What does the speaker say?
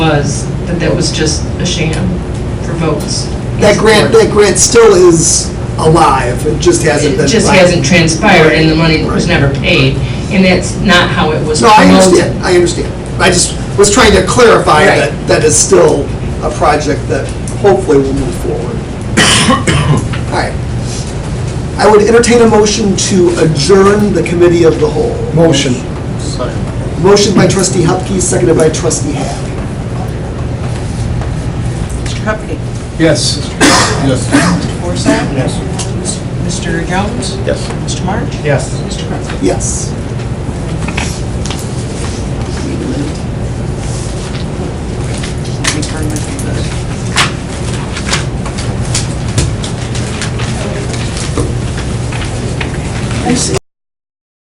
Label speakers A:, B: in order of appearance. A: was, that that was just a sham for votes.
B: That grant, that grant still is alive, it just hasn't been.
A: It just
B: funded.
A: hasn't transpired, and the money was never paid, and that's not how it was
B: No, I
A: promoted.
B: understand, I understand. I just was trying to clarify
A: Right.
B: that that is still a project that hopefully will move forward. All right. I would entertain a motion to adjourn the committee of the whole.
C: Motion.
B: Motion by trustee Hupkey, seconded by trustee Hack.
D: Mr. Hupkey.
C: Yes. Yes.
D: Mr. Forsythe. Yes. Mr. Jones.
C: Yes.
D: Mr. March.
C: Yes.
D: Mr. Crowe.
B: Yes.